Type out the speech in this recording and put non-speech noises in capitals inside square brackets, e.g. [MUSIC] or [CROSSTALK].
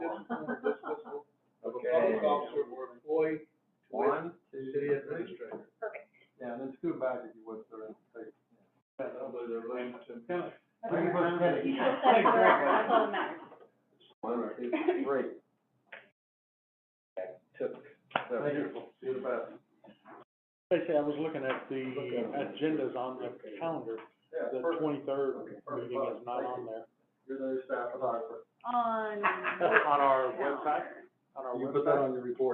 related to Kennedy. Bring her credit. You just said correct, that's all that matters. One, two, three. That Took. That's beautiful, see the best. Basically, I was looking at the Look at it. agendas on the calendar, Yeah, the perfect. Okay, twenty-third perfect. meeting is not on there, You're the new staff photographer. On. [LAUGHS] On our website? on our You put that website. on your report.